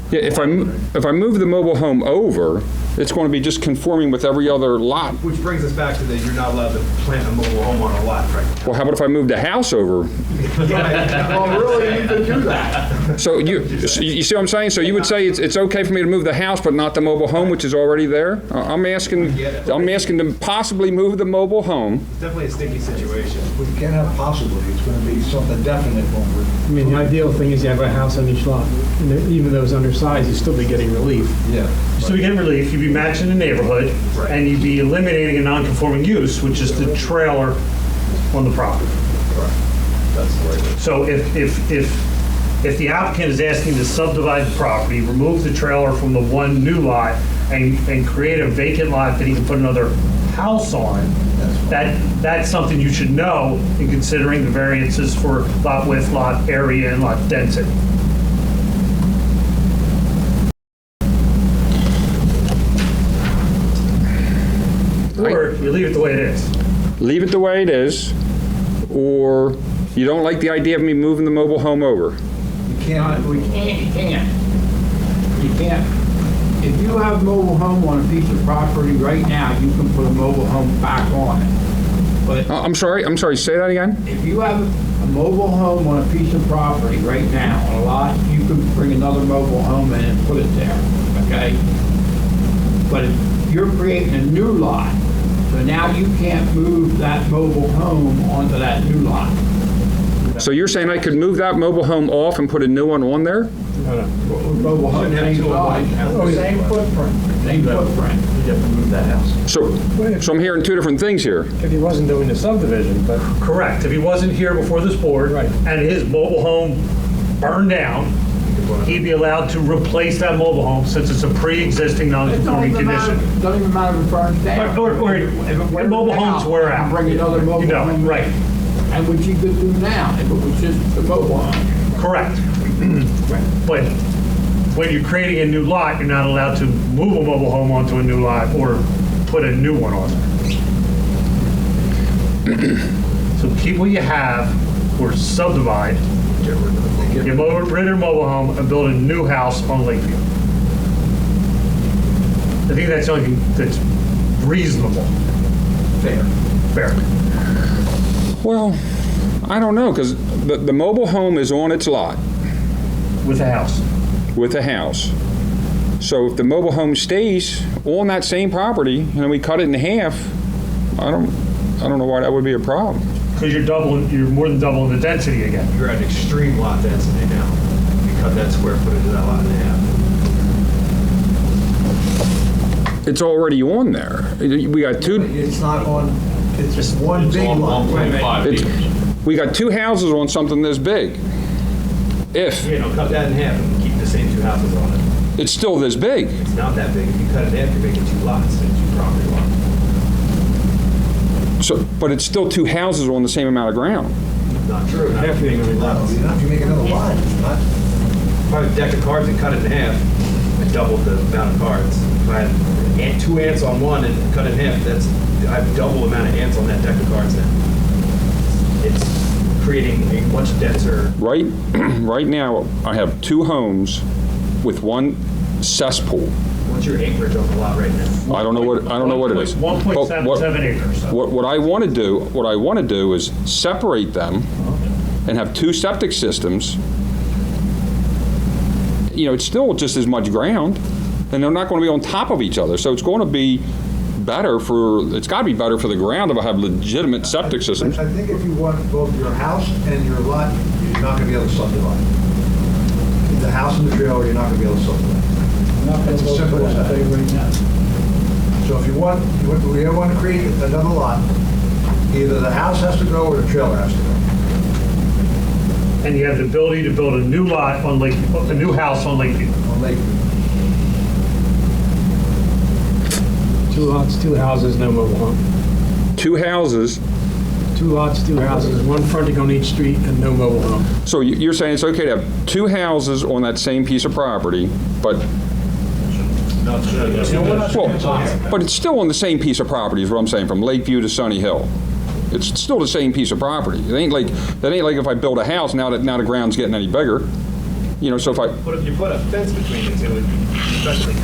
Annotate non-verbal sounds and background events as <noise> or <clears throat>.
Yeah, if I, mo- if I move the mobile home over, it's going to be just conforming with every other lot. Which brings us back to that you're not allowed to plant a mobile home on a lot, right? <laughs> Well, how about if I move the house over? Well, really, you could do that. So you, so you see what I'm saying? So you would say it's, it's okay for me to move the house, but not the mobile home, which is already there? I- I'm asking, I'm asking to possibly move the mobile home. It's definitely a sticky situation. We can't have possibly, it's gonna be something definite when I mean, the ideal thing is you have a house on each lot, and then even though it's undersized, you'd still be getting relief. yeah. So you get relief, you'd be matching the neighborhood, and you'd be eliminating a non-conforming use, which is the trailer on the property. That's the way it is. So if, if, if, if the applicant is asking to subdivide the property, remove the trailer from the one new lot and, and create a vacant lot that he can put another house on, that, that's something you should know in considering the variances for lot width, lot area, and lot density. Or you leave it the way it is. Leave it the way it is, or you don't like the idea of me moving the mobile home over? You can't, We can't, you can't. You can't. If you have mobile home on a piece of property right now, you can put a mobile home back on it. I- I'm sorry, I'm sorry, say that again? If you have a mobile home on a piece of property right now, on a lot, you can bring another mobile home in and put it there, okay? But if you're creating a new lot, so now you can't move that mobile home onto that new lot. So you're saying I could move that mobile home off and put a new one on there? Mobile home, Shouldn't have same two of them. Oh, size, Oh, same footprint, same footprint. You have to move that house. So, so I'm hearing two different things here. If he wasn't doing the subdivision, but Correct, if he wasn't here before this board. Right. And his mobile home burned down, he'd be allowed to replace that mobile home since it's a pre-existing It don't non-conforming even matter- condition. Don't even matter if it burns down. Or- or- or- were mobile homes down, were I out. can Bring another mobile You know, home. in. right. And what you could do now, if it was just the mobile home. <clears throat> Correct. But when you're creating a new lot, you're not allowed to move a mobile home onto a new lot or put a new one on <clears throat> there. So keep what you have or subdivide. Get rid of the mobile home and build a new house on Lakeview. I think that's the only thing that's reasonable. Fair. Fair. Well, I don't know, because the, the mobile home is on its lot With a house. with the house. So if the mobile home stays on that same property and we cut it in half, I don't, I don't know why that would be a problem. Because you're doubling, you're more than doubling the density again. You're at extreme lot density now. You cut that square footage of that lot in half. It's already on there. We got two, It's not on, it's just one It's big all lot. 1.5 It's- acres. we got two houses on something this big. If You know, cut that in half and keep the same two houses on it. it's still this big, It's not that big. If you cut it in half, you're making two lots, it's two property lots. so, but it's still two houses on the same amount of ground. Not true. Half you're making lots. You know, if you make another lot, it's not, Probably a deck of cards and cut it in half, I doubled the amount of cards. If I had ant- two ants on one and cut it in half, that's, I have double the amount of ants on that deck of cards now. It's creating a much denser, Right, <clears throat> right now, I have two homes with one cesspool. what's your acreage on the lot right now? I don't know what, I don't know what it is. One point But seven what- seven acres. What, what I want to do, what I want to do is separate them and have two septic systems. You know, it's still just as much ground, and they're not going to be on top of each other, so it's going to be better for, it's got to be better for the ground if I have legitimate septic systems. I think if you want both your house and your lot, you're not gonna be able to subdivide. The house and the trailer, you're not gonna be able to subdivide. It's as simple as that. right now. So if you want, you want- we don't wanna create another lot, either the house has to go or the trailer has to go. And you have the ability to build a new lot on Lakeview, a new house on Lakeview. on Lakeview. two lots, two houses, no mobile home. Two houses, Two lots, two houses, one fronting on each street and no mobile home. so you- you're saying it's okay to have two houses on that same piece of property, but, Not sure. well, but it's still on the same piece of property, is what I'm saying, from Lakeview to Sunny Hill. It's still the same piece of property. It ain't like, that ain't like if I build a house, now that, now the ground's getting any bigger. You know, so if I, But if you put a fence between the two, especially